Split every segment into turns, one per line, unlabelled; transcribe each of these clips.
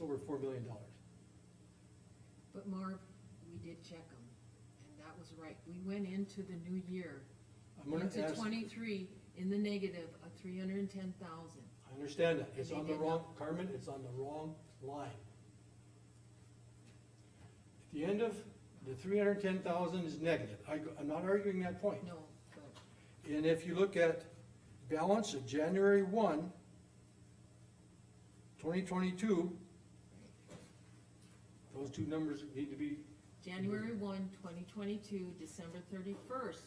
over four million dollars.
But Marv, we did check them, and that was right. We went into the new year,
I'm gonna
into
ask,
twenty-three, in the negative of three hundred and ten thousand.
I understand that, it's
And
on
they
the
did
wrong, Carmen, it's on the wrong line. At the end of, the three hundred and ten thousand is negative, I, go- I'm not arguing that point.
No, but
And if you look at balance of January 1, 2022, those two numbers need to be,
January one, twenty twenty-two, December thirty-first,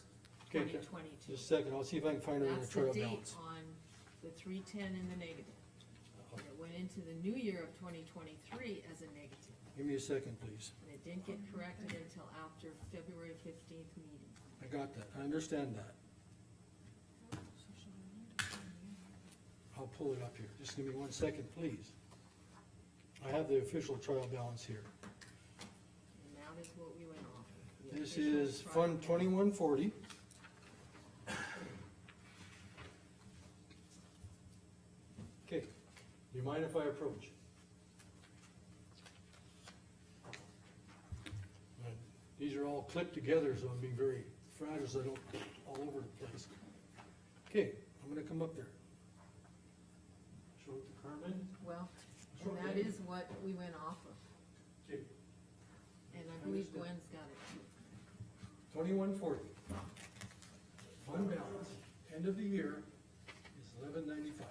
Okay,
twenty
okay.
twenty-two.
just a second, I'll see if I can find it in the
That's the
trail
date
balance.
on the three-ten in the negative. And it went into the new year of twenty twenty-three as a negative,
Give me a second, please.
and it didn't get corrected until after February fifteenth meeting.
I got that, I understand that. I'll pull it up here, just give me one second, please. I have the official trial balance here.
And that is what we went off. of, the
This
official
is
trial
Fund
balance.
twenty-one forty. Okay, do you mind if I approach? Uh, These are all clipped together, so I'm being very fragile, so I don't, all over the place. Okay, I'm gonna come up there. Show it to Carmen.
Well, and Oh, that is what we went off of,
Okay,
and I believe
Understood.
Gwen's got it too.
twenty-one forty. Fund balance, end of the year, is eleven ninety-five.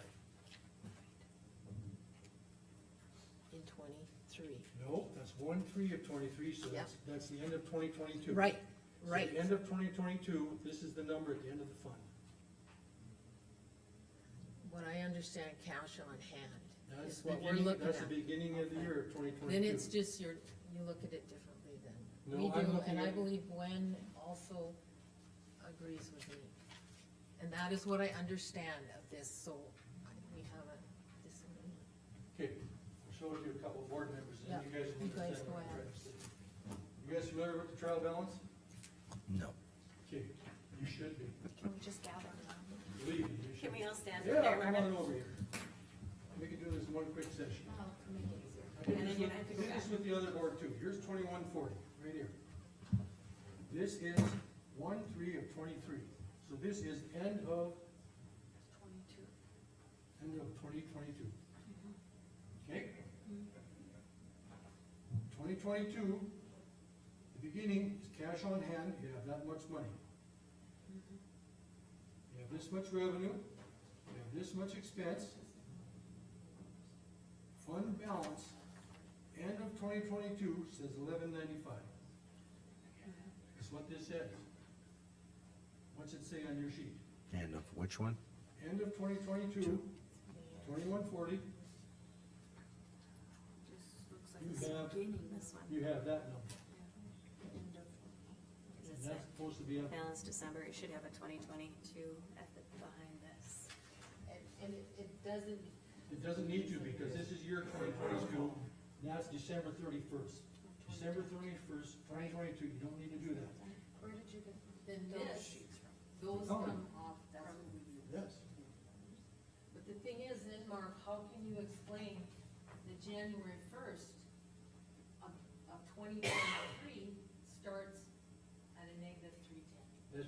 In twenty-three.
No, that's one three of twenty-three, so that's, that's the end of twenty twenty-two.
Right,
So the end of twenty twenty-two, this is the number at the end of the fund.
What I understand, cash on hand
That's
is
the
what we're
beginning-
looking
That's the
at.
beginning of the year of twenty twenty-two.
Then it's just your, you look at it differently then.
No,
We
I'm
do,
looking
and I
at-
believe Gwen also agrees with me. And that is what I understand of this, so I- we have a disagreement.
Okay, I'll show it to a couple of board members, and
Yeah,
you guys will
you guys
understand
go
what I'm
ahead.
trying to say. You guys familiar with the trial balance?
No.
Okay, you should be,
Can we just gather around?
believe me, you should.
Can we all stand up
Yeah,
there,
come
Marvin?
on over here. We can do this in one quick session. I
And
did
then
this
you
with-
have to
I
go
did
back.
this with the other board too, here's twenty-one forty, right here. This is one three of twenty-three, so this is end of,
Twenty-two.
end of twenty twenty-two. Okay? Twenty twenty-two, the beginning is cash on hand, you have that much money. You have this much revenue, you have this much expense. Fund balance, end of twenty twenty-two says eleven ninety-five. That's what this says. What's it say on your sheet?
And of which one?
End of 2022, 2140.
Two.
Just looks
You
like it's
have-
beginning this one.
you have that number.
End of- 'cause
And
it's
that's supposed to be
a
up,
Balance December, it should have a twenty twenty-two at the, behind this.
And, and it, it doesn't,
it doesn't need to, because this is year twenty twenty-two, that's December thirty-first. December thirty-first, twenty twenty-two, you don't need to do that.
where did you get, then those, those
Color.
come off, that's what we do.
Yes.
But the thing is, then Marv, how can you explain the January first of, of twenty twenty-three starts at a negative three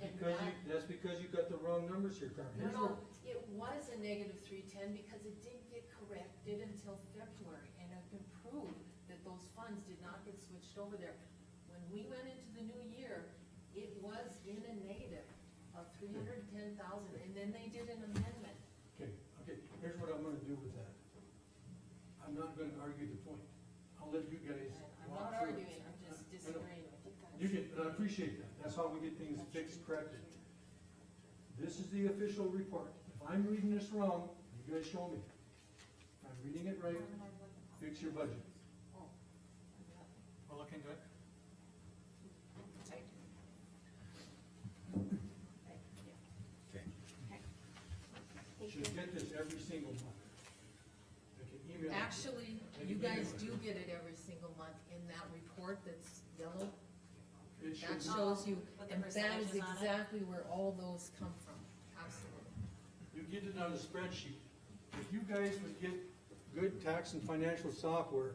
That's
ten?
because you, that's because you got the wrong numbers here, Carmen.
No,
Here's
no,
what-
it was a negative three ten because it didn't get corrected until February, and it can prove that those funds did not get switched over there. When we went into the new year, it was in a negative of three hundred and ten thousand, and then they did an amendment.
Okay, okay, here's what I'm gonna do with that. I'm not gonna argue the point. I'll let you guys
I'm
walk
not
through it.
arguing, I'm
I- I know.
just disagreeing with you.
You can, and I appreciate that, that's how we get things fixed, corrected. This is the official report, if I'm reading this wrong, you guys show me. If I'm reading it right, fix your budget. We're looking good.
Okay.
Should get this every single month. I can email it.
Actually, you guys do get it every single month in that report that's yellow,
It should,
that shows you,
With the
and that is
percentages on it?
exactly where all those come from, absolutely.
you get it on a spreadsheet. If you guys would get good tax and financial software,